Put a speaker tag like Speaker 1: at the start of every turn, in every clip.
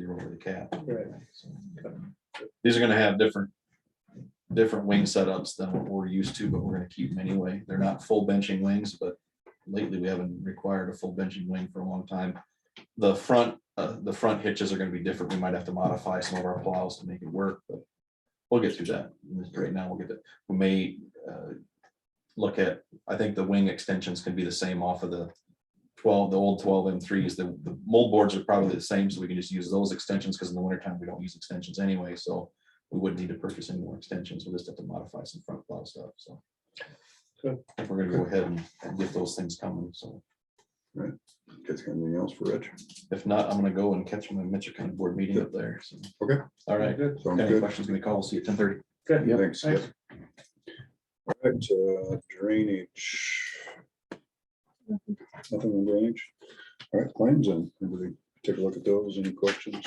Speaker 1: the cap.
Speaker 2: Right.
Speaker 1: So, These are gonna have different, different wing setups than what we're used to, but we're gonna keep them anyway. They're not full benching wings, but lately we haven't required a full benching wing for a long time. The front, uh, the front hitches are gonna be different. We might have to modify some of our plows to make it work, but we'll get through that. Right now, we'll get that. We may, uh, look at, I think the wing extensions can be the same off of the twelve, the old twelve M threes, the, the mold boards are probably the same, so we can just use those extensions, because in the wintertime, we don't use extensions anyway, so we wouldn't need to purchase any more extensions, we'll just have to modify some front plow stuff, so.
Speaker 2: Good.
Speaker 1: I think we're gonna go ahead and, and get those things coming, so
Speaker 3: Catch anything else for Rich?
Speaker 1: if not, I'm gonna go and catch my Mitchell County Board meeting up there, so.
Speaker 3: Okay.
Speaker 1: All right,
Speaker 2: Good.
Speaker 3: Sounds
Speaker 1: any
Speaker 3: good.
Speaker 1: questions, gonna call, we'll see you at ten thirty.
Speaker 2: Good.
Speaker 1: Yep.
Speaker 3: Thanks.
Speaker 2: Thanks.
Speaker 3: Yep. All right, uh, drainage. Nothing on drainage. All right, claims in. Everybody take a look at those. Any questions?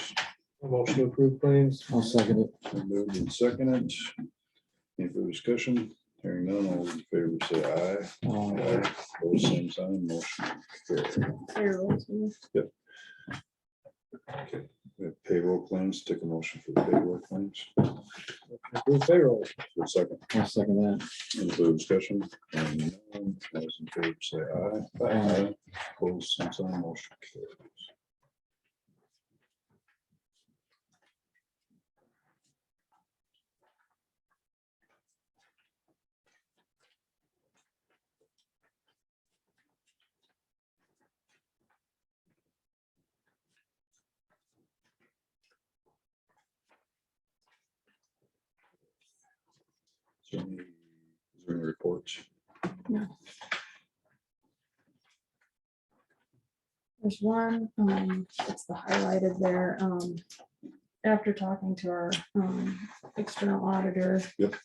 Speaker 2: Motion to approve claims.
Speaker 4: I'll second it.
Speaker 3: Been Moved and seconded. Any further discussion? Hearing none, all those in favor say aye. Aye. Those same sign, motion carried. Yep. We have Payroll claims, take a motion for the payroll claims.
Speaker 2: Approve payroll.
Speaker 3: For a Second.
Speaker 4: I'll second that.
Speaker 3: Any further discussion? Hearing none, all Those in favor say aye.
Speaker 4: Aye.
Speaker 3: Aye. Opposed, same sign, motion carries. Is there any- is there any reports?
Speaker 5: There's one, um, it's the highlighted there, um, after talking to our, um, external auditor.
Speaker 3: Yep.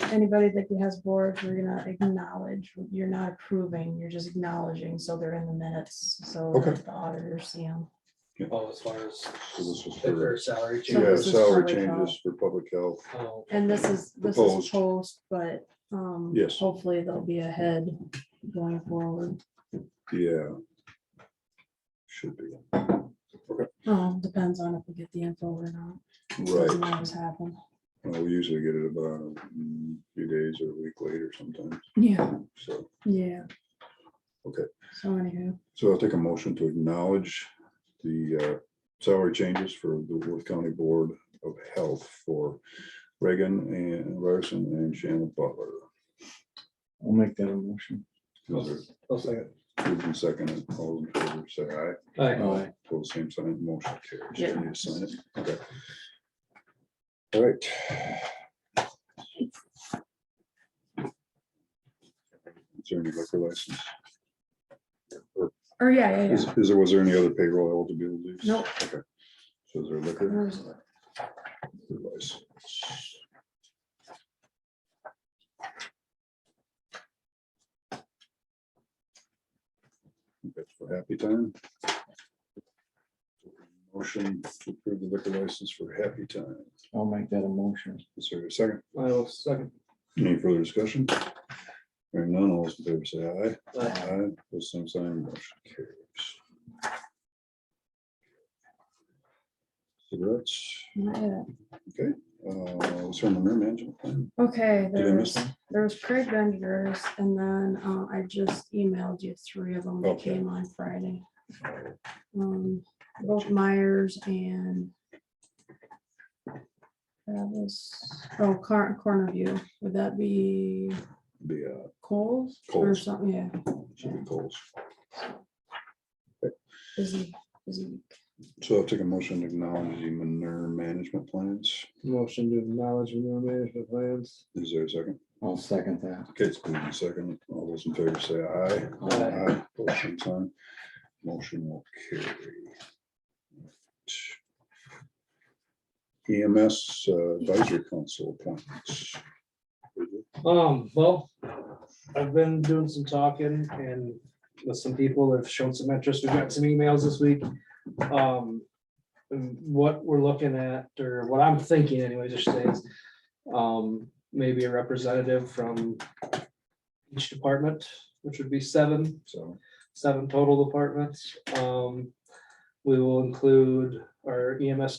Speaker 5: Anybody that has boards, we're gonna acknowledge, you're not approving, you're just acknowledging, so they're in the minutes, so
Speaker 3: Okay.
Speaker 5: that the auditors see them.
Speaker 2: Oh, as far as
Speaker 3: So this was
Speaker 2: their
Speaker 3: for-
Speaker 2: salary
Speaker 5: So
Speaker 3: Yeah,
Speaker 5: this
Speaker 2: changes.
Speaker 5: is
Speaker 3: salary
Speaker 5: public
Speaker 3: changes
Speaker 5: health.
Speaker 3: for public health.
Speaker 2: Oh,
Speaker 5: And this is, this is
Speaker 3: Proposed.
Speaker 5: post, but, um,
Speaker 3: Yes.
Speaker 5: hopefully they'll be ahead going forward.
Speaker 3: Yeah. Should be.
Speaker 5: Um, depends on if we get the info or not.
Speaker 3: Right.
Speaker 5: Doesn't always happen.
Speaker 3: Well, we usually get it about mm, a few days or a week later sometimes.
Speaker 5: Yeah,
Speaker 3: So,
Speaker 5: yeah.
Speaker 3: Okay.
Speaker 5: So anywho.
Speaker 3: so I'll take a motion to acknowledge the uh, salary changes for the Worth County Board of Health for Reagan and Ryerson and Shannon Butler.
Speaker 4: I'll make that a motion.
Speaker 3: Those
Speaker 2: I'll second.
Speaker 3: are moved and seconded. All in favor, say aye.
Speaker 2: Aye.
Speaker 4: Aye.
Speaker 3: Pull the same sign, motion carries.
Speaker 5: Yeah.
Speaker 3: Do you need to sign it? Okay. All right. Is there any liquor license?
Speaker 5: Or yeah, yeah,
Speaker 3: Is,
Speaker 5: yeah.
Speaker 3: is there, was there any other payroll eligibilities?
Speaker 5: Nope.
Speaker 3: Okay. So is there liquor
Speaker 5: There's-
Speaker 3: license? That's for Happy Time. Motion to approve the liquor license for Happy Time.
Speaker 4: I'll make that a motion.
Speaker 3: Is there a second?
Speaker 2: I will second.
Speaker 3: Any further discussion? Hearing none, all those in favor say aye.
Speaker 2: Aye.
Speaker 3: Aye, those same sign, motion carries. Cigarettes,
Speaker 5: not yet.
Speaker 3: uh, let's turn the mirror management plan.
Speaker 5: Okay,
Speaker 3: Did I miss
Speaker 5: there's,
Speaker 3: one?
Speaker 5: there's Craig Vengers, and then uh, I just emailed you three of them that
Speaker 3: Okay.
Speaker 5: came on Friday. Um, Both Myers and Travis, oh, Car- Corner View, would that be
Speaker 3: Be, uh,
Speaker 5: Coles or
Speaker 3: Kohl's.
Speaker 5: something? Yeah,
Speaker 3: uh, should be Coles.
Speaker 5: busy, busy week.
Speaker 3: So I'll take a motion to acknowledge the manure management plans.
Speaker 2: Motion to acknowledge manure management plans.
Speaker 3: Is there a second?
Speaker 4: I'll second that.
Speaker 3: Okay, it's been a second. All those in favor say aye.
Speaker 2: Aye.
Speaker 3: Both same sign. Motion will carry. EMS uh, Advisory Council appointments.
Speaker 2: Um, well, I've been doing some talking and with some people that have shown some interest. We've got some emails this week. Um, What we're looking at, or what I'm thinking anyways, just is, um, maybe a representative from each department, which would be seven.
Speaker 3: So,
Speaker 2: seven total departments. Um, We will include our EMS